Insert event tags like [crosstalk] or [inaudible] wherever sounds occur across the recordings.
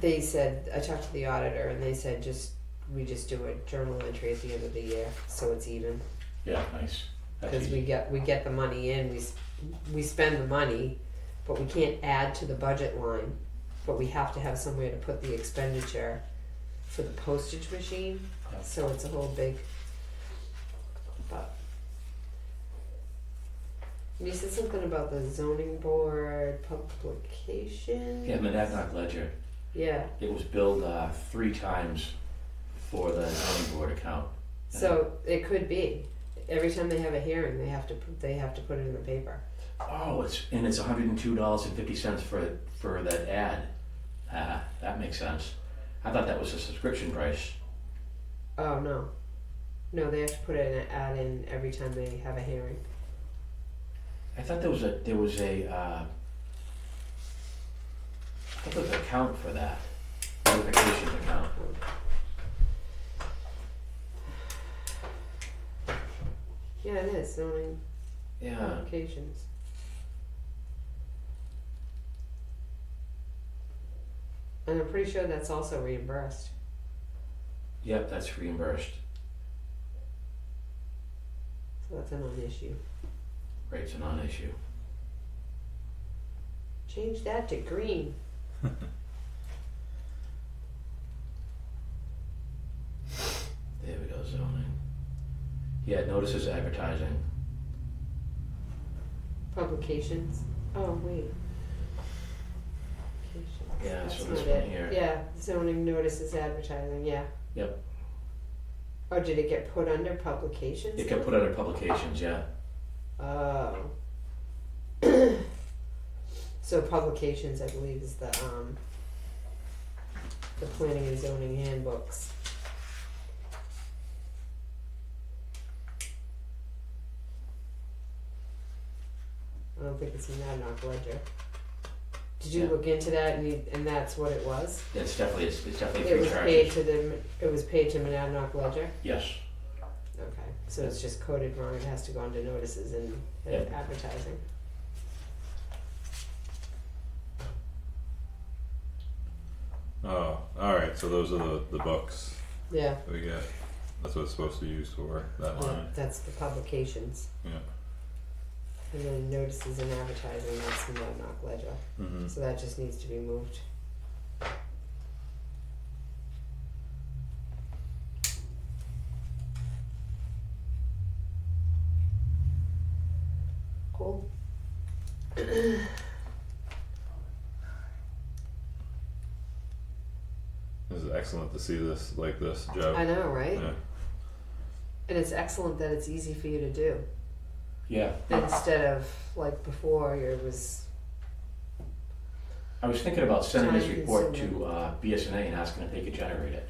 they said, I talked to the auditor and they said just, we just do a journal entry at the end of the year, so it's even. Yeah, nice. That's Cause we easy. get, we get the money in, we, s- we spend the money, but we can't add to the budget line. But we have to have somewhere to put the expenditure for the postage machine, Yeah. so it's a whole big, but. You said something about the zoning board publication. Yeah, Monadnock Ledger, Yeah, it was billed, uh, three times for the zoning board account. so it could be, every time they have a hearing, they have to, put they have to put it in the paper. Oh, it's, and it's hundred and two dollars and fifty cents for, for that ad. Ah, that makes sense. I thought that was a subscription price. Oh, no. No, they have to put in an ad in every time they have a hearing. I thought there was a, there was a, uh, I thought there was an account for that, notification account. Yeah, it is, zoning Yeah, applications. And I'm pretty sure that's also reimbursed. yep, that's reimbursed. So that's a non-issue. Rate's a non-issue. Change that to green. There we go, zoning. Yeah, notices advertising. Publications. Oh wait. Publications. Yeah, That's so not this it. one here. Yeah, zoning notices advertising. Yeah. Yep. Oh, did it get put under publications? It can put under publications, yeah. Oh. so publications, I believe, is the um. The planning and zoning handbooks. I don't think it's in that knock ledger. Did you Yeah. look into that and you, and that's what it was? Yeah, It's definitely, it's, it's definitely It free was charges. paid to the, it was paid to Monadnock Ledger? Yes, Okay, so it's just coded wrong, it has to go under notices and and advertising. Oh, all right. So those are the the books Yeah, that we get. That's what it's supposed to be used for. That yeah, line. that's the publications. Yeah. And then notices and advertising, that's the Monadnock Ledger, Mm-hmm. so that just needs to be moved. Cool. This is excellent to see this like this, Joe. I know, right? Yeah. And it's excellent that it's easy for you to do. yeah. instead of like before it was I was thinking about sending this Time report consuming. to, uh, BSNA and asking if they could generate it.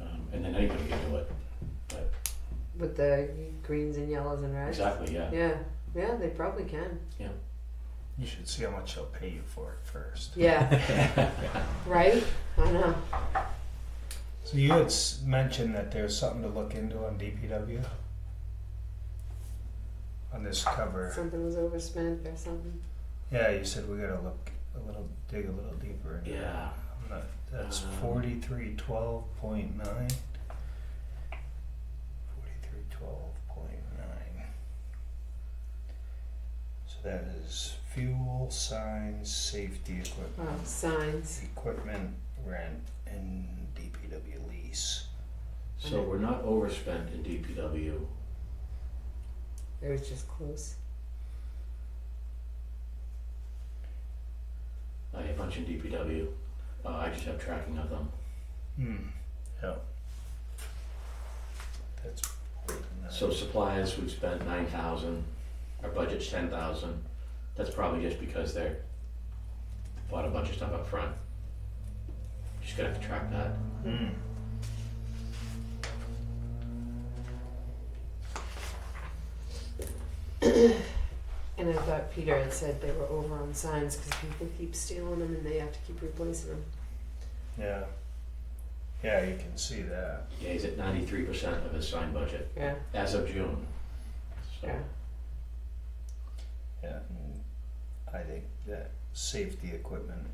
Um, and then anybody could do it. with the greens and yellows and reds. Exactly, yeah. Yeah, yeah, they probably can. You should see how much they'll pay you for it first. Yeah, right. I know. So you had s- mentioned that there's something to look into on DPW. On this cover, Something was overspent or something. yeah, you said we gotta look a little, dig a little deeper. into it. [laughs] Yeah, I'm not, that's Um, forty-three twelve point nine. Forty-three twelve point nine. So that is fuel, signs, safety Oh, equipment. signs. Equipment rent and DPW lease. so we're not overspent in DPW. It was just close. I have a bunch in DPW. Uh, I just have tracking of them. Hmm. Yeah. That's. pretty nice. So supplies, we've spent nine thousand, our budget's ten thousand, that's probably just because they're bought a bunch of stuff up front. Just gonna have to track that. Hmm. And I thought Peter had said they were over on signs because people keep stealing them and they have to keep replacing them. Yeah. Yeah, you can see that. Yeah, he's at ninety-three percent of his signed budget Yeah, as of June. So, yeah. Yeah. and I think that safety equipment